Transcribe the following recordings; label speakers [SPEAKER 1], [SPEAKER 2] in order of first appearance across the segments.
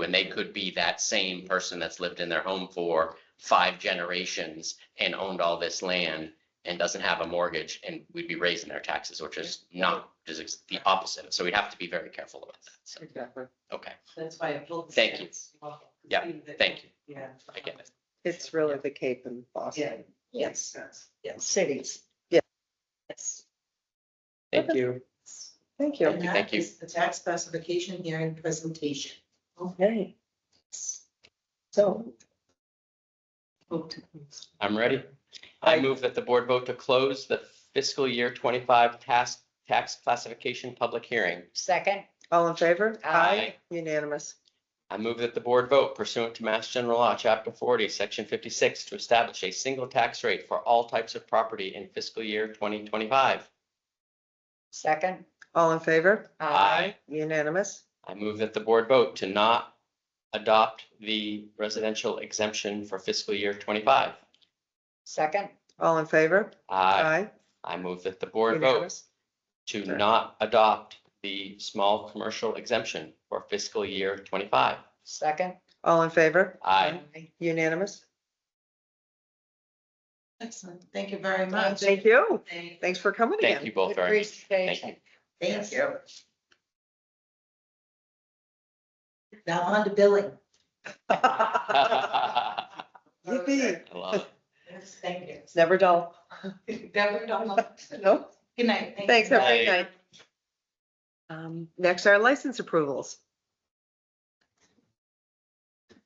[SPEAKER 1] when they could be that same person that's lived in their home for five generations and owned all this land and doesn't have a mortgage, and we'd be raising their taxes, which is not, is the opposite. So we'd have to be very careful about that. So,
[SPEAKER 2] Exactly.
[SPEAKER 1] okay,
[SPEAKER 3] That's why I pulled. the
[SPEAKER 1] Thank you.
[SPEAKER 3] stats off, 'cause
[SPEAKER 1] Yeah,
[SPEAKER 3] we- that-
[SPEAKER 1] thank you.
[SPEAKER 3] Yeah.
[SPEAKER 1] I get it.
[SPEAKER 2] It's really the Cape and
[SPEAKER 3] Yeah.
[SPEAKER 2] Boston.
[SPEAKER 3] Yes. Yes.
[SPEAKER 4] cities.
[SPEAKER 2] Yeah.
[SPEAKER 4] Yes.
[SPEAKER 1] Thank you.
[SPEAKER 2] Thank you.
[SPEAKER 3] And
[SPEAKER 1] Thank
[SPEAKER 3] that
[SPEAKER 1] you.
[SPEAKER 3] is the tax classification hearing presentation.
[SPEAKER 4] Okay. So
[SPEAKER 1] I'm ready. I move that the board vote to close the fiscal year twenty-five tax, tax classification public hearing.
[SPEAKER 4] second,
[SPEAKER 2] All in favor?
[SPEAKER 1] Aye.
[SPEAKER 2] Unanimous.
[SPEAKER 1] I move that the board vote pursuant to Mass General Law, Chapter 40, Section 56, to establish a single tax rate for all types of property in fiscal year 2025.
[SPEAKER 4] second.
[SPEAKER 2] All in favor?
[SPEAKER 4] uh,
[SPEAKER 2] Unanimous.
[SPEAKER 1] I move that the board vote to not adopt the residential exemption for fiscal year 25.
[SPEAKER 4] Second,
[SPEAKER 2] All in favor? Uh,
[SPEAKER 1] Aye. I move that the board vote
[SPEAKER 2] Unanimous.
[SPEAKER 1] to
[SPEAKER 2] Sure.
[SPEAKER 1] not adopt the small commercial exemption for fiscal year 25.
[SPEAKER 4] second.
[SPEAKER 2] All in favor?
[SPEAKER 1] Aye.
[SPEAKER 2] Unanimous.
[SPEAKER 3] Excellent. Thank you very much.
[SPEAKER 2] Thank you.
[SPEAKER 3] Thank
[SPEAKER 2] Thanks for coming
[SPEAKER 1] Thank
[SPEAKER 2] again.
[SPEAKER 1] you both
[SPEAKER 4] Good
[SPEAKER 1] very much. Thank you.
[SPEAKER 4] presentation.
[SPEAKER 3] thank you. Now on to billing.
[SPEAKER 1] I
[SPEAKER 2] Yippee.
[SPEAKER 1] love it.
[SPEAKER 3] Yes, Thank you.
[SPEAKER 2] It's never dull.
[SPEAKER 3] Never done that.
[SPEAKER 2] No.
[SPEAKER 3] Good night. Thank
[SPEAKER 2] Thanks,
[SPEAKER 3] you.
[SPEAKER 2] have a good
[SPEAKER 1] Bye.
[SPEAKER 2] night. Um, next are license approvals.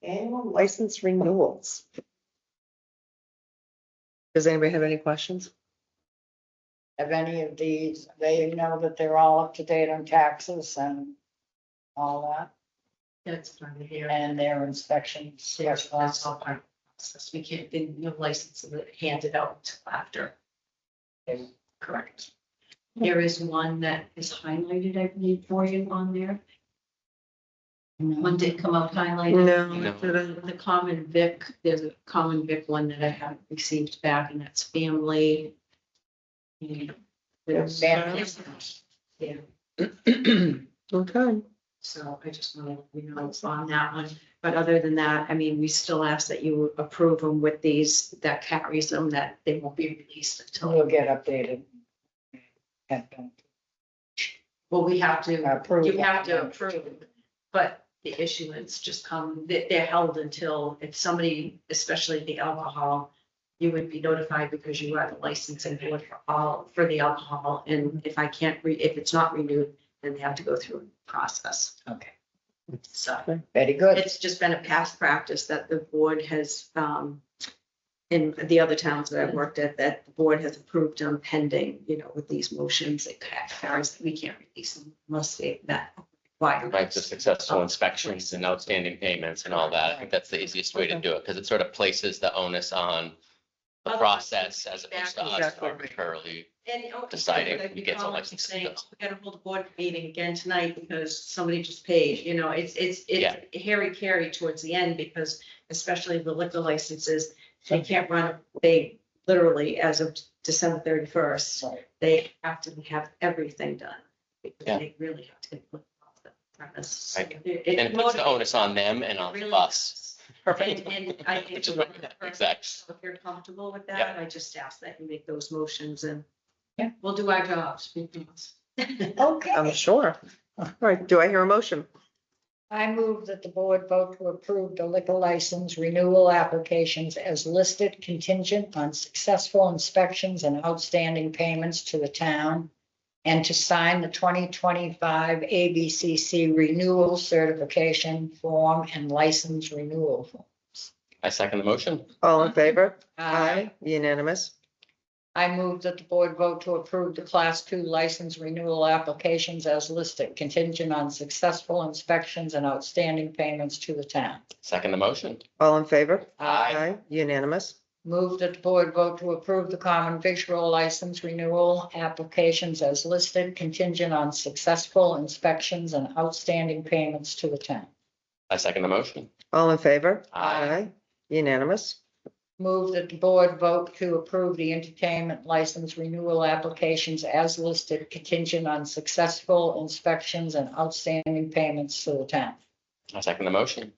[SPEAKER 2] Annual license renewals. Does anybody have any questions?
[SPEAKER 4] Have any of these, they know that they're all up to date on taxes and all that,
[SPEAKER 3] That's fine to hear.
[SPEAKER 4] and their inspections.
[SPEAKER 3] Yes, that's all part of the process. We can't, the new license is handed out after. Correct.
[SPEAKER 5] There is one that is highlighted, I believe, for you on there. One did come up highlighted.
[SPEAKER 1] No.
[SPEAKER 2] No.
[SPEAKER 5] The common vic, there's a common vic one that I haven't received back and that's family. And there's-
[SPEAKER 4] Family.
[SPEAKER 5] Yeah,
[SPEAKER 2] Okay.
[SPEAKER 5] so I just want to, you know, on that one. But other than that, I mean, we still ask that you approve them with these, that carries them, that they won't be released until,
[SPEAKER 4] We'll get updated. Have been
[SPEAKER 5] well, we have to.
[SPEAKER 4] approved.
[SPEAKER 5] You have to approve, but the issuance just come, they, they're held until, if somebody, especially the alcohol, you would be notified because you are the licensing board for all, for the alcohol, and if I can't re, if it's not renewed, then they have to go through a process.
[SPEAKER 4] Okay.
[SPEAKER 5] So
[SPEAKER 4] Very good.
[SPEAKER 5] it's just been a past practice that the board has, um, in the other towns that I've worked at, that the board has approved on pending, you know, with these motions, it carries, we can't release them unless they that requirement.
[SPEAKER 1] Right, the successful inspections and outstanding payments and all that. I think that's the easiest way to do it because it sort of places the onus on the
[SPEAKER 5] Otherwise,
[SPEAKER 1] process as opposed to us
[SPEAKER 2] Exactly.
[SPEAKER 1] arbitrarily.
[SPEAKER 5] And, oh,
[SPEAKER 1] deciding
[SPEAKER 5] like
[SPEAKER 1] who
[SPEAKER 5] you
[SPEAKER 1] gets
[SPEAKER 5] call up and
[SPEAKER 1] elected
[SPEAKER 5] say,
[SPEAKER 1] to this.
[SPEAKER 5] "Oh, We gotta hold a board meeting again tonight because somebody just paid, you know, it's, it's, it's hairy carry towards the end because especially the liquor licenses, they can't run, they literally, as of December thirty-first,
[SPEAKER 4] Right.
[SPEAKER 5] they have to have everything done. because
[SPEAKER 1] Yeah.
[SPEAKER 5] They really have to. look off the premise.
[SPEAKER 1] Right.
[SPEAKER 5] It- it
[SPEAKER 1] And it puts the
[SPEAKER 5] motivates
[SPEAKER 1] onus on them and on
[SPEAKER 5] really
[SPEAKER 1] us.
[SPEAKER 5] does.
[SPEAKER 1] Right?
[SPEAKER 5] And, and I.
[SPEAKER 1] Which is what- Exactly.
[SPEAKER 5] So If you're comfortable with
[SPEAKER 1] Yeah.
[SPEAKER 5] that, I just ask that you make those motions and
[SPEAKER 4] Yeah.
[SPEAKER 5] we'll do our jobs. because-
[SPEAKER 2] I'm
[SPEAKER 4] Okay.
[SPEAKER 2] sure. All right, do I hear a motion?
[SPEAKER 4] I move that the board vote to approve the liquor license renewal applications as listed contingent on successful inspections and outstanding payments to the town and to sign the 2025 ABCC renewal certification form and license renewal. form.
[SPEAKER 1] I second the motion.
[SPEAKER 2] All in favor? Unanimous.
[SPEAKER 4] I move that the board vote to approve the class two license renewal applications as listed contingent on successful inspections and outstanding payments to the town.
[SPEAKER 1] Second the motion.
[SPEAKER 2] All in favor?
[SPEAKER 1] Aye.
[SPEAKER 2] Unanimous.
[SPEAKER 4] Move that the board vote to approve the common victual license renewal applications as listed contingent on successful inspections and outstanding payments to the town.
[SPEAKER 1] I second the motion.
[SPEAKER 2] All in favor?
[SPEAKER 1] Aye.
[SPEAKER 2] Unanimous.
[SPEAKER 4] Move that the board vote to approve the entertainment license renewal applications as listed contingent on successful inspections and outstanding payments to the town.
[SPEAKER 1] I second the motion.